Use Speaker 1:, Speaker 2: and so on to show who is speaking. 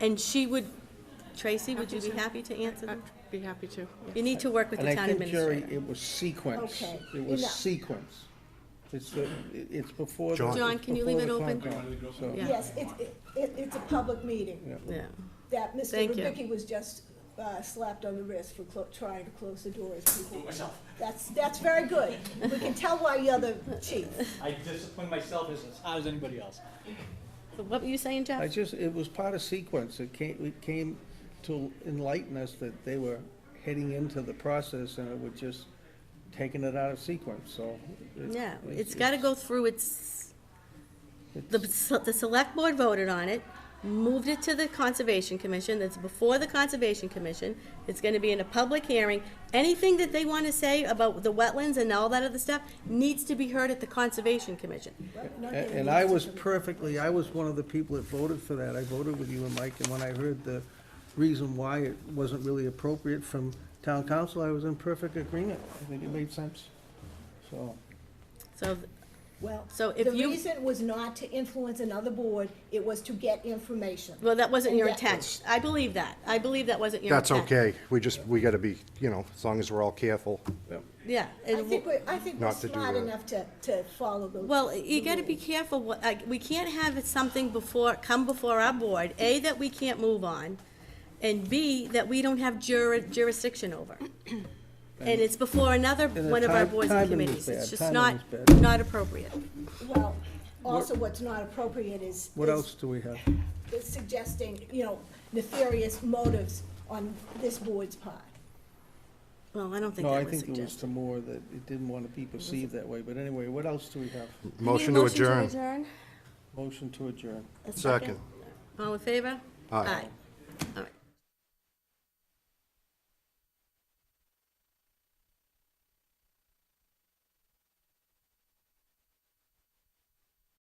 Speaker 1: And she would, Tracy, would you be happy to answer them?
Speaker 2: I'd be happy to. yeah.
Speaker 1: You need to work with
Speaker 3: And
Speaker 1: the
Speaker 3: I
Speaker 1: town
Speaker 3: think, Jerry,
Speaker 1: administrator.
Speaker 3: it was sequence.
Speaker 1: Okay,
Speaker 3: It was
Speaker 1: enough.
Speaker 3: sequence. It's, the- it- it's before. the-
Speaker 4: John.
Speaker 1: John, can you leave
Speaker 3: before
Speaker 1: it
Speaker 3: the
Speaker 1: open?
Speaker 3: countdown, so-
Speaker 1: Yeah.
Speaker 5: Yes, it's, it- it, it's a public meeting
Speaker 3: yeah.
Speaker 1: Yeah.
Speaker 5: that Mr.
Speaker 1: Thank you.
Speaker 5: Rubicki was just uh, slapped on the wrist for clo- trying to close the doors. Myself. That's, that's very good. We can tell why you're the chief.
Speaker 6: I discipline myself as hard as anybody else.
Speaker 1: So What were you saying,
Speaker 3: I
Speaker 1: Jeff?
Speaker 3: just, it was part of sequence. It came, it came to enlighten us that they were heading into the process and it was just taking it out of sequence, so. it-
Speaker 1: Yeah, it's gotta go through its, the, the select board voted on it, moved it to the conservation commission, that's before the conservation commission. It's gonna be in a public hearing. Anything that they wanna say about the wetlands and all that other stuff needs to be heard at the conservation commission.
Speaker 3: A- And I was perfectly, I was one of the people that voted for that. I voted with you and Mike, and when I heard the reason why it wasn't really appropriate from town council, I was in perfect agreement. I think it made sense, so.
Speaker 1: So,
Speaker 5: Well,
Speaker 1: So if
Speaker 5: the
Speaker 1: you-
Speaker 5: reason was not to influence another board, it was to get information.
Speaker 1: well, that wasn't your
Speaker 5: Yeah.
Speaker 1: intent. I believe that. I believe that wasn't your
Speaker 4: That's
Speaker 1: intent.
Speaker 4: okay. We just, we gotta be, you know, as long as we're all careful.
Speaker 1: Yeah.
Speaker 5: I think we're, I think we're
Speaker 4: Not to do
Speaker 5: smart
Speaker 4: that.
Speaker 5: enough to, to follow the.
Speaker 1: Well, you
Speaker 5: the
Speaker 1: gotta be
Speaker 5: rules.
Speaker 1: careful, what- like, we can't have it something before, come before our board, A, that we can't move on, and B, that we don't have jur- jurisdiction over. And it's before another,
Speaker 3: the
Speaker 1: one of our
Speaker 3: ti-
Speaker 1: boards and
Speaker 3: timing is
Speaker 1: committees, it's
Speaker 3: bad.
Speaker 1: just
Speaker 3: Timing
Speaker 1: not,
Speaker 3: is bad.
Speaker 1: not appropriate.
Speaker 5: Well, also what's not appropriate is.
Speaker 3: What
Speaker 5: is-
Speaker 3: else do we have?
Speaker 5: is suggesting, you know, nefarious motives on this board's part.
Speaker 1: Well, I don't think
Speaker 3: No, I
Speaker 1: that was
Speaker 3: think it was
Speaker 1: suggested.
Speaker 3: to more that it didn't want to be perceived that way, but anyway, what else do we have?
Speaker 4: Motion to adjourn.
Speaker 3: Motion to adjourn.
Speaker 1: A
Speaker 4: Second.
Speaker 1: All in favor?
Speaker 4: Aye.